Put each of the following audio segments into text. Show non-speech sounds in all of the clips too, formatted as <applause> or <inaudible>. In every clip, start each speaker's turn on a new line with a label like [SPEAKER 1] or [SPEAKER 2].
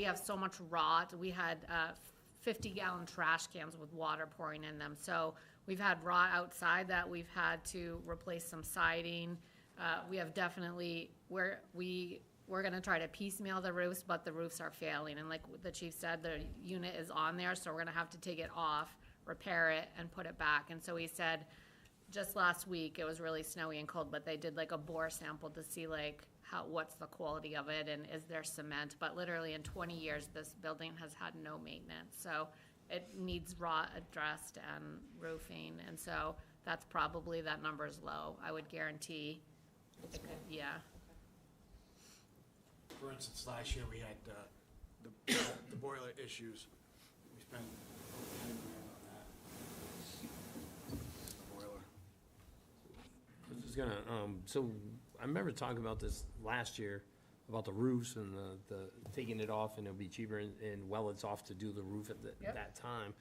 [SPEAKER 1] We have so much rot. We had uh, 50 gallon trash cans with water pouring in them. So we've had rot outside that we've had to replace some siding. Uh, We have definitely, we're, we, we're gonna try to piecemeal the roofs, but the roofs are failing. And like the chief said, the unit is on there, so we're gonna have to take it off, repair it, and put it back. And so he said, just last week, it was really snowy and cold, but they did like a bore sample to see like how, what's the quality of it and is there cement? But literally in twenty years, this building has had no maintenance, so it needs rot addressed and roofing, and so that's probably, that number's low, I would guarantee. It could- Yeah,
[SPEAKER 2] For instance, last year we had uh, the the boiler issues. We spent over 10 grand on that. The Boiler.
[SPEAKER 3] I was gonna, um, so I remember talking about this last year, about the roofs and the, the, taking it off and it'll be cheaper and, and well, it's off to do the roof at the,
[SPEAKER 1] Yep.
[SPEAKER 3] that time.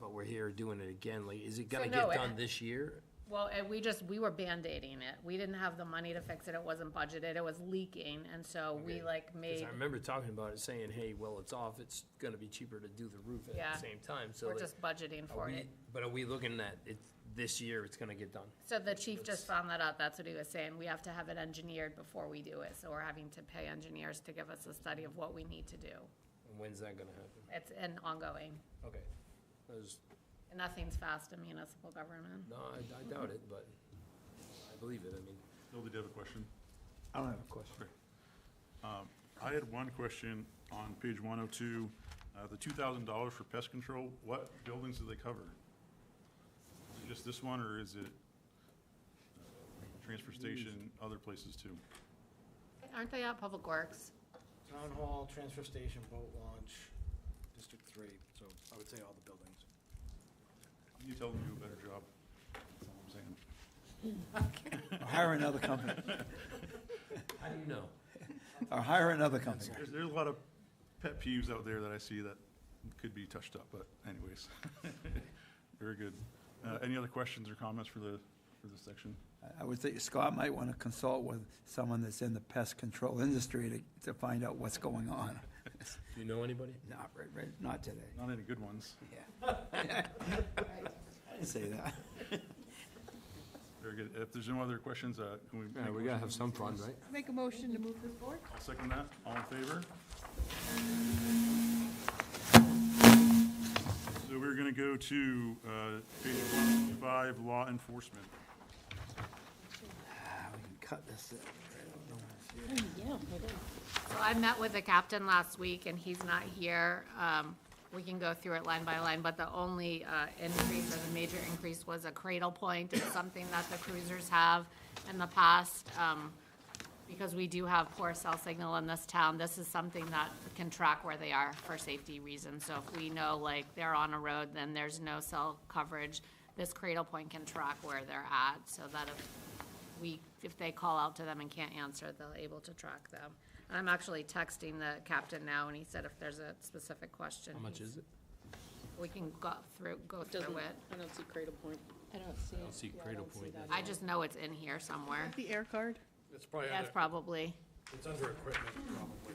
[SPEAKER 3] But we're here doing it again, like, is it gonna
[SPEAKER 1] no,
[SPEAKER 3] get
[SPEAKER 1] it-
[SPEAKER 3] done this year?
[SPEAKER 1] well, and we just, we were Band-Aiding it, we didn't have the money to fix it, it wasn't budgeted, it was leaking, and so we
[SPEAKER 3] Okay.
[SPEAKER 1] like
[SPEAKER 3] Cause
[SPEAKER 1] made,
[SPEAKER 3] I remember talking about it, saying, hey, well, it's off, it's gonna be cheaper to do the roof at
[SPEAKER 1] Yeah.
[SPEAKER 3] the same time, so
[SPEAKER 1] we're
[SPEAKER 3] like.
[SPEAKER 1] just budgeting
[SPEAKER 3] are
[SPEAKER 1] for
[SPEAKER 3] uh, we-
[SPEAKER 1] it.
[SPEAKER 3] But are we looking at, it's, this year, it's gonna get done?
[SPEAKER 1] So the chief just found that out, that's what he was saying, we have to have it engineered before we do it, so we're having to pay engineers to give us a study of what we need to do.
[SPEAKER 3] And when's that gonna happen?
[SPEAKER 1] It's an ongoing,
[SPEAKER 3] Okay. I was-
[SPEAKER 1] and nothing's fast in municipal government.
[SPEAKER 3] no, I, I doubt it, but I believe it, I mean.
[SPEAKER 4] Bill, did you have a question?
[SPEAKER 5] I don't have a question.
[SPEAKER 4] Um, I had one question on page 102, uh, the $2,000 for pest control, what buildings do they cover? Is it just this one, or is it uh, transfer station, other places too?
[SPEAKER 1] Aren't they at Public Works?
[SPEAKER 2] Town hall, transfer station, boat launch, District 3, so I would say all the buildings.
[SPEAKER 4] You tell them you do a better job, that's all I'm saying.
[SPEAKER 5] Or hire another company,
[SPEAKER 3] How do you know?
[SPEAKER 5] or hire another company.
[SPEAKER 4] There's, there's a lot of pet peeves out there that I see that could be touched up, but anyways. <laughs> Very good. Uh, Any other questions or comments for the, for this section?
[SPEAKER 5] I- I would think Scott might want to consult with someone that's in the pest control industry to, to find out what's going on.
[SPEAKER 3] Do you know anybody?
[SPEAKER 5] Not, right, right, not today.
[SPEAKER 4] Not any good ones.
[SPEAKER 5] I didn't say that.
[SPEAKER 4] Very good. If there's no other questions, uh, can we? make a motion?
[SPEAKER 3] some fun, right?
[SPEAKER 6] Make a motion to move this forward?
[SPEAKER 4] I'll second that. All in favor? So we're going to go to uh, page 155, law enforcement.
[SPEAKER 5] Ah, we can Cut this. uh, right out. Don't wanna see it.
[SPEAKER 6] Yeah, I do.
[SPEAKER 1] So I met with the captain last week, and he's not here. Um, We can go through it line by line, but the only uh, increase, or the major increase, was a cradle point. It's something that the cruisers have in the past, um, because we do have poor cell signal in this town. This is something that can track where they are for safety reasons. So if we know, like, they're on a road, then there's no cell coverage, this cradle point can track where they're at, so that if we, if they call out to them and can't answer, they're able to track them. And I'm actually texting the captain now, and he said if there's a specific question.
[SPEAKER 3] How much is it?
[SPEAKER 1] We can go through, go through it.
[SPEAKER 7] I don't see Cradle Point.
[SPEAKER 6] I don't see it.
[SPEAKER 3] don't see
[SPEAKER 7] Yeah, I
[SPEAKER 3] Cradle
[SPEAKER 7] don't see
[SPEAKER 3] Point.
[SPEAKER 7] that.
[SPEAKER 1] I just know it's in here somewhere.
[SPEAKER 6] The air card?
[SPEAKER 2] It's probably,
[SPEAKER 1] That's
[SPEAKER 2] under-
[SPEAKER 1] probably,
[SPEAKER 2] it's under equipment, probably.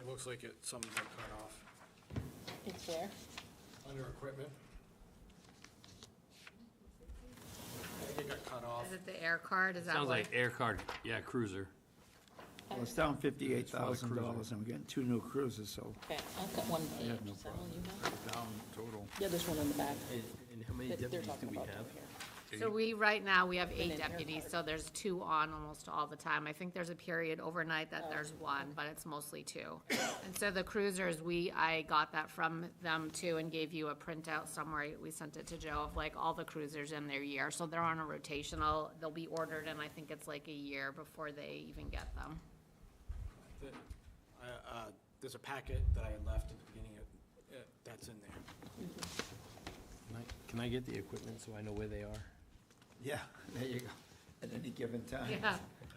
[SPEAKER 2] It looks like it, some are cut off.
[SPEAKER 7] It's there.
[SPEAKER 2] Under equipment. I think it got cut off.
[SPEAKER 1] is it the air card? Is that
[SPEAKER 3] Sounds
[SPEAKER 1] what?
[SPEAKER 3] like air card, yeah, cruiser.
[SPEAKER 5] Well, it's down fifty-eight thousand dollars, and we're getting two new cruisers, so
[SPEAKER 7] Okay, I've got one page, is that all you have?
[SPEAKER 4] Down total.
[SPEAKER 7] Yeah, there's one on the back
[SPEAKER 3] And how many
[SPEAKER 7] that they're
[SPEAKER 3] deputies do
[SPEAKER 7] talking
[SPEAKER 3] we
[SPEAKER 7] about
[SPEAKER 3] have?
[SPEAKER 7] down here.
[SPEAKER 1] So we, right now, we have eight
[SPEAKER 7] an air
[SPEAKER 1] deputies,
[SPEAKER 7] card.
[SPEAKER 1] so there's two on almost all the time. I think there's a period overnight that there's one, but it's mostly two. And so the cruisers, we, I got that from them too and gave you a printout somewhere. We sent it to Joe of like all the cruisers in their year. So they're on a rotational, they'll be ordered and I think it's like a year before they even get them. <laughs>
[SPEAKER 2] The- I, uh, There's a packet that I had left at the beginning of, uh, that's in there.
[SPEAKER 3] Can I- Can I get the equipment so I know where they are?
[SPEAKER 5] yeah, there you go. At any given time.
[SPEAKER 1] Yeah,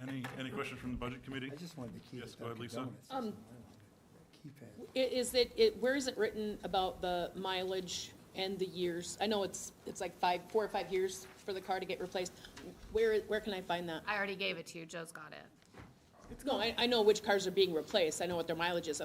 [SPEAKER 4] Any, any questions from the budget committee?
[SPEAKER 5] I just wanted to keep
[SPEAKER 4] Yes,
[SPEAKER 5] it
[SPEAKER 4] go ahead,
[SPEAKER 5] Dunkin'
[SPEAKER 4] Lisa.
[SPEAKER 5] Donuts.
[SPEAKER 7] Um,
[SPEAKER 5] Keypad.
[SPEAKER 7] I- Is it, it, where is it written about the mileage and the years? I know it's, it's like five, four or five years for the car to get replaced. Where, where can I find that?
[SPEAKER 1] I already gave it to you. Joe's got it.
[SPEAKER 7] It's No, I, I know which cars are being replaced, I know what their mileage is, I'm